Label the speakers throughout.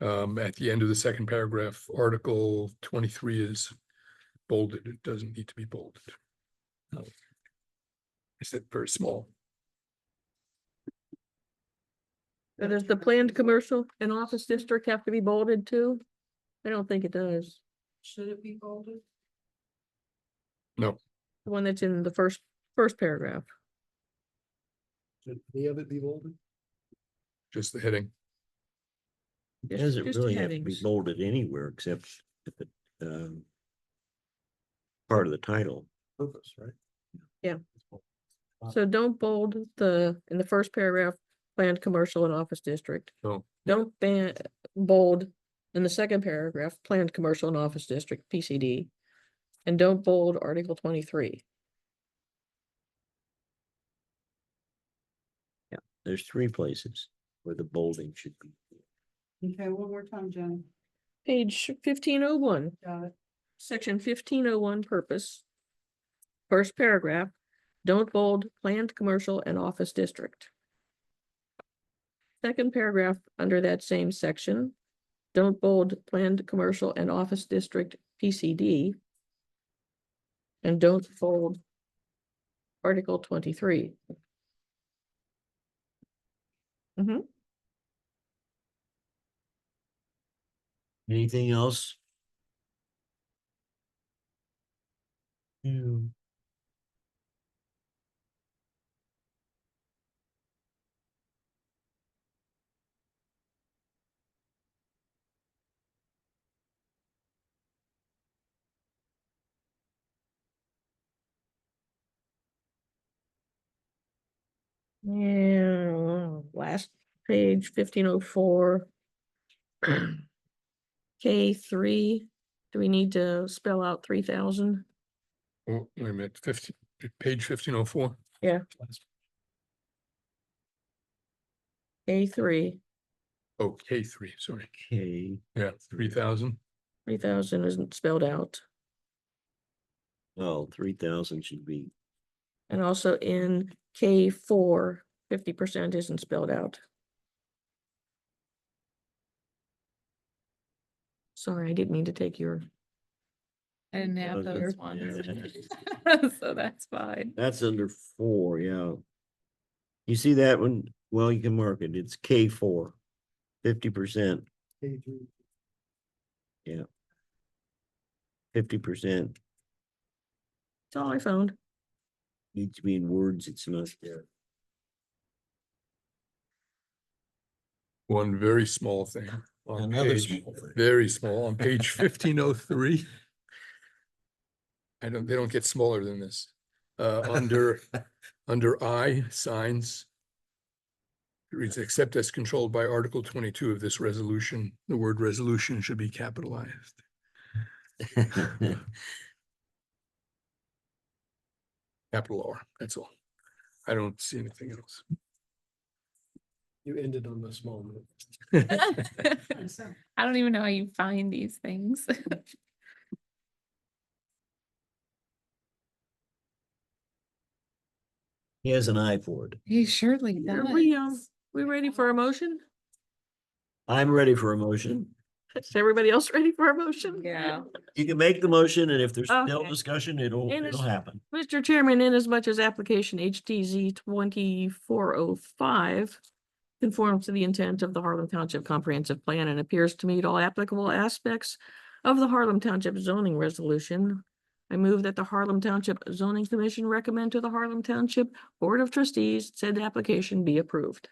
Speaker 1: Um, at the end of the second paragraph, article twenty-three is bolded. It doesn't need to be bolded.
Speaker 2: Oh.
Speaker 1: Is it very small?
Speaker 3: But does the planned commercial and office district have to be bolded too? I don't think it does.
Speaker 4: Should it be bolded?
Speaker 3: The one that's in the first, first paragraph.
Speaker 5: Should any of it be bolded?
Speaker 1: Just the heading.
Speaker 3: Just-
Speaker 2: Doesn't
Speaker 3: just
Speaker 2: really have to be
Speaker 3: headings.
Speaker 2: bolded anywhere except if it, um. Part of the title.
Speaker 5: Purpose, right?
Speaker 3: Yeah. So don't bold the, in the first paragraph, planned commercial and office district.
Speaker 1: No.
Speaker 3: Don't ban, bold in the second paragraph, planned commercial and office district, PCD. And don't bold article twenty-three.
Speaker 2: There's three places where the bolding should be.
Speaker 4: Okay, one more time, Jenny.
Speaker 3: Page fifteen oh one.
Speaker 4: Got it.
Speaker 3: Section fifteen oh one purpose. First paragraph, don't bold planned commercial and office district. Second paragraph under that same section, don't bold planned commercial and office district PCD. And don't bold article twenty-three.
Speaker 2: Anything else?
Speaker 3: Yeah, last page fifteen oh four. K three, do we need to spell out three thousand?
Speaker 1: Oh, wait a minute, fifteen, page fifteen oh four.
Speaker 3: K three,
Speaker 1: Oh, K three, sorry.
Speaker 2: Okay,
Speaker 1: Yeah, three thousand.
Speaker 3: three thousand isn't spelled out.
Speaker 2: well, three thousand should be,
Speaker 3: And also in K 4 50 percent isn't spelled out. Sorry, I didn't mean to take your,
Speaker 6: I didn't have
Speaker 2: those
Speaker 6: those
Speaker 2: are-
Speaker 6: ones. So that's fine.
Speaker 2: that's under four, yeah. You see that one? Well, you can mark it. It's K four. Fifty percent,
Speaker 5: K three,
Speaker 2: fifty percent
Speaker 3: that's all I found.
Speaker 2: needs to be in words. It's not there.
Speaker 1: One very small thing. on
Speaker 5: Another
Speaker 1: page-
Speaker 5: small thing.
Speaker 1: Very small, on page fifteen oh three. I don't, they don't get smaller than this. Uh, under, under I, signs. It reads, except as controlled by Article twenty-two of this resolution, the word resolution should be capitalized. Capital R, that's all. I don't see anything else.
Speaker 5: you ended on the small note.
Speaker 6: I don't even know how you find these things.
Speaker 2: He has an eye for it.
Speaker 6: He surely
Speaker 3: Are we, um, we ready for a motion?
Speaker 2: I'm ready for a motion.
Speaker 3: Is everybody else ready for a motion?
Speaker 6: Yeah.
Speaker 2: You can make the motion and if there's still
Speaker 3: Okay.
Speaker 2: discussion, it'll,
Speaker 3: And
Speaker 2: it'll
Speaker 3: it's-
Speaker 2: happen.
Speaker 3: Mr. Chairman, inasmuch as application HTZ twenty-four oh five conforms to the intent of the Harlem Township Comprehensive Plan and appears to meet all applicable aspects of the Harlem Township zoning resolution, I move that the Harlem Township Zoning Commission recommend to the Harlem Township Board of Trustees said application be approved.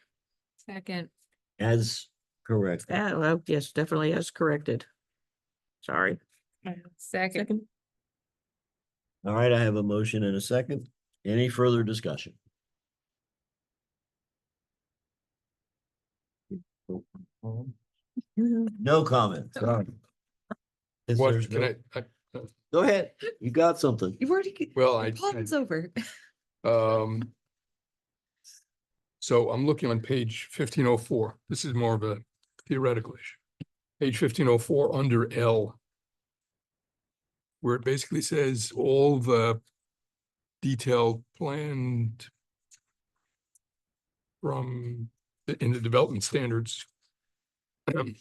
Speaker 6: Second.
Speaker 2: As correct.
Speaker 3: That, uh, yes, definitely as corrected. Sorry.
Speaker 6: Second.
Speaker 3: Second.
Speaker 2: All right, I have a motion and a second. Any further discussion?
Speaker 6: Mm-hmm.
Speaker 2: No comment. sorry. Since
Speaker 1: What,
Speaker 2: there's
Speaker 1: can
Speaker 2: no-
Speaker 1: I, I,
Speaker 2: Go ahead. You got something.
Speaker 6: You've already.
Speaker 1: well, I. I-
Speaker 6: Plans over.
Speaker 1: Um. So I'm looking on page fifteen oh four. This is more of a theoretical issue. Page fifteen oh four under L. Where it basically says all the detailed planned. From, the- in the development standards. um,